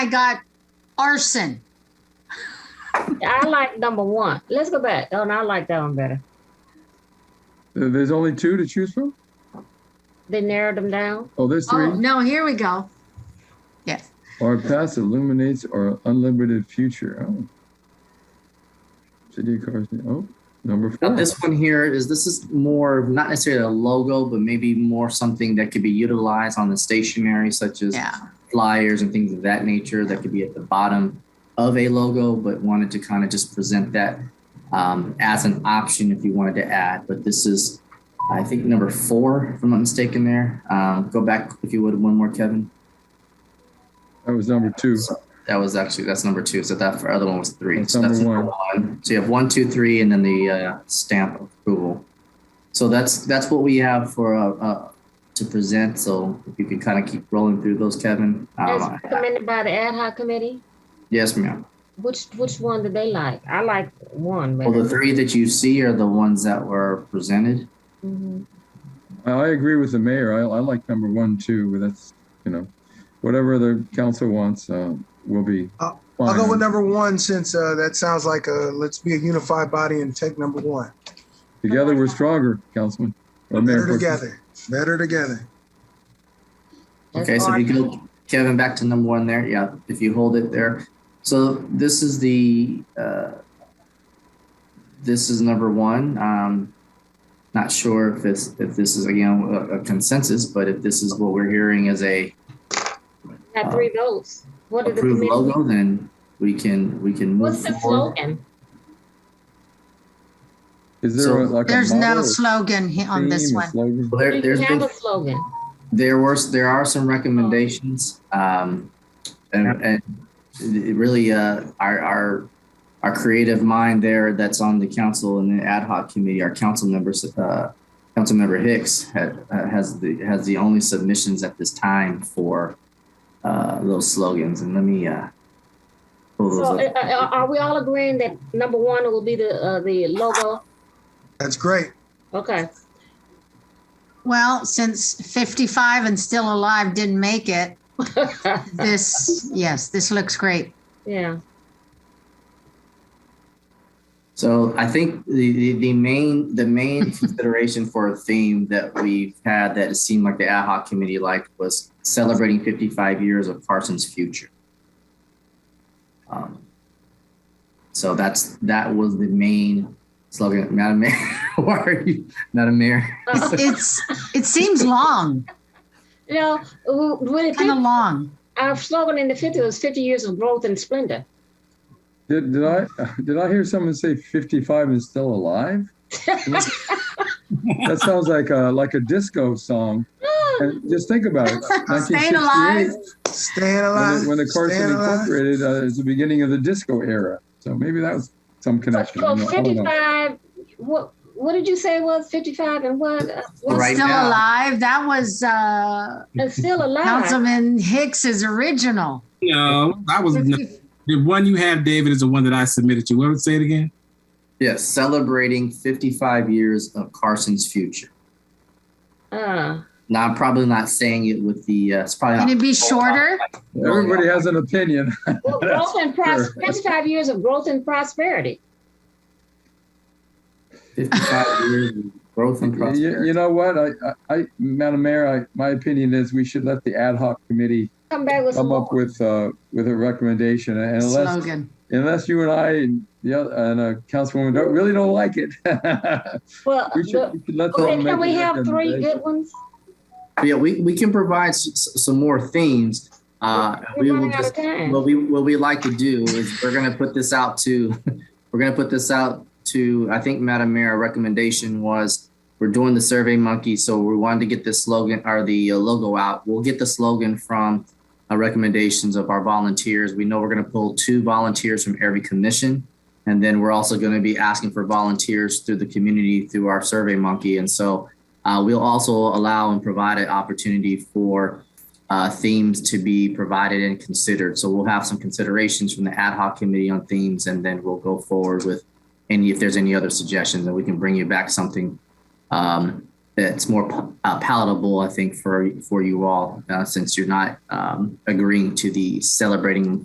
I got arson. I like number one. Let's go back. Oh, no, I like that one better. Uh, There's only two to choose from? They narrowed them down. Oh, there's three. Oh, no, here we go. Yes. Our past illuminates our unlimited future. Oh. City of cars. Oh, number Now, four. this one here is this is more of not necessarily a logo, but maybe more something that could be utilized on the stationery, such as Yeah. flyers and things of that nature that could be at the bottom of a logo, but wanted to kind of just present that um, as an option if you wanted to add. But this is, I think, number four, if I'm not mistaken, there. Um, go back, if you would, one more, Kevin. That was number two. That was actually, that's number two. So that other one was three. That's So that's number number one. So you have one, two, three, and then the uh, stamp approval. So that's, that's what we have for, uh, uh, to present. So if you could kind of keep rolling through those, Kevin. As Um, recommended by the ad hoc committee. Yes, ma'am. Which which one did they like? I like one Well, better. Oh, the three that you see are the ones that were presented. Mhm. I, I agree with the mayor. I, I like number one, too, but that's, you know, whatever the council wants uh, will be. I'll- I'll fine. go with number one since uh, that sounds like a let's be a unified body and take number one. Together we're stronger, Councilman. Or Mayor. Better Pro Tem. together. Better together. That's Okay, so if you hard. go, Kevin, back to number one there. Yeah, if you hold it there. So this is the, uh, this is number one. Um, not sure if this, if this is again a a consensus, but if this is what we're hearing as a Got three votes. What did the approved committee? uh, logo, then we can, we can move What's the forward. slogan? Is there a- So- like a There's motto no or slogan he- on this theme or one. slogan? There- We there's have been a slogan. there were there are some recommendations um and, and it really uh our our our creative mind there that's on the council and the ad hoc committee our council members uh council member hicks had, uh, has the has the only submissions at this time for uh those slogans and let me uh pull those So, up. uh, uh, are we all agreeing that number one will be the uh, the logo? That's great. Okay. Well, since 55 and still alive didn't make it, this, yes, this looks great. yeah. So I think the, the, the main the main consideration for a theme that we've had that it seemed like the ad hoc committee liked was celebrating 55 years of Carson's future. Um, so that's that was the main slogan. Madam Mayor, why are you Madam Mayor? Uh, It's, it seems long, you know, w- when it kind of long. our slogan in the 50s was 50 years of growth and splendor. Did, did I, did I hear someone say fifty-five and still alive? That sounds like a, like a disco song. And just think about it. Staying alive. 1968, Staying When alive. the, when the Carson staying alive. Incorporated uh, is the beginning of the disco era. So maybe that was some connection. I So don't know. I don't know. 55, what what did you say it was 55 and what? Uh, what's Right Still now. alive. That was uh, it's still alive? Councilman Hicks's original. No, that was no, 50 the one you have, David, is the one that I submitted to. What would say it again? Yes, celebrating 55 years of Carson's future. Uh, Now I'm probably not saying it with the uh, it's probably Can not it be shorter? Everybody has an opinion. well, growth and pros- 55 years of growth and prosperity. 55 years of growth and You, prosperity. you know what? I, I, I, Madam Mayor, I, my opinion is we should let the ad hoc committee Come back with some come up more. with, uh, with a recommendation. And unless Slogan. unless you and I and the other, and uh, Councilwoman don't, really don't like it. Well, we, should, the- we should let them okay, make can a we have three recommendation. good ones? But yeah, we, we can provide s- s- some more themes. Uh, we We're will running out just, of time. what we what we like to do is we're gonna put this out to we're gonna put this out to I think Madam Mayor our recommendation was we're doing the Survey Monkey, so we wanted to get this slogan or the uh, logo out. We'll get the slogan from uh, recommendations of our volunteers. We know we're gonna pull two volunteers from every commission. And then we're also going to be asking for volunteers through the community through our Survey Monkey. And so uh, we'll also allow and provide an opportunity for uh, themes to be provided and considered. So we'll have some considerations from the ad hoc committee on themes, and then we'll go forward with any if there's any other suggestions, and we can bring you back something um, that's more pa- uh, palatable, I think, for for you all, uh, since you're not um, agreeing to the celebrating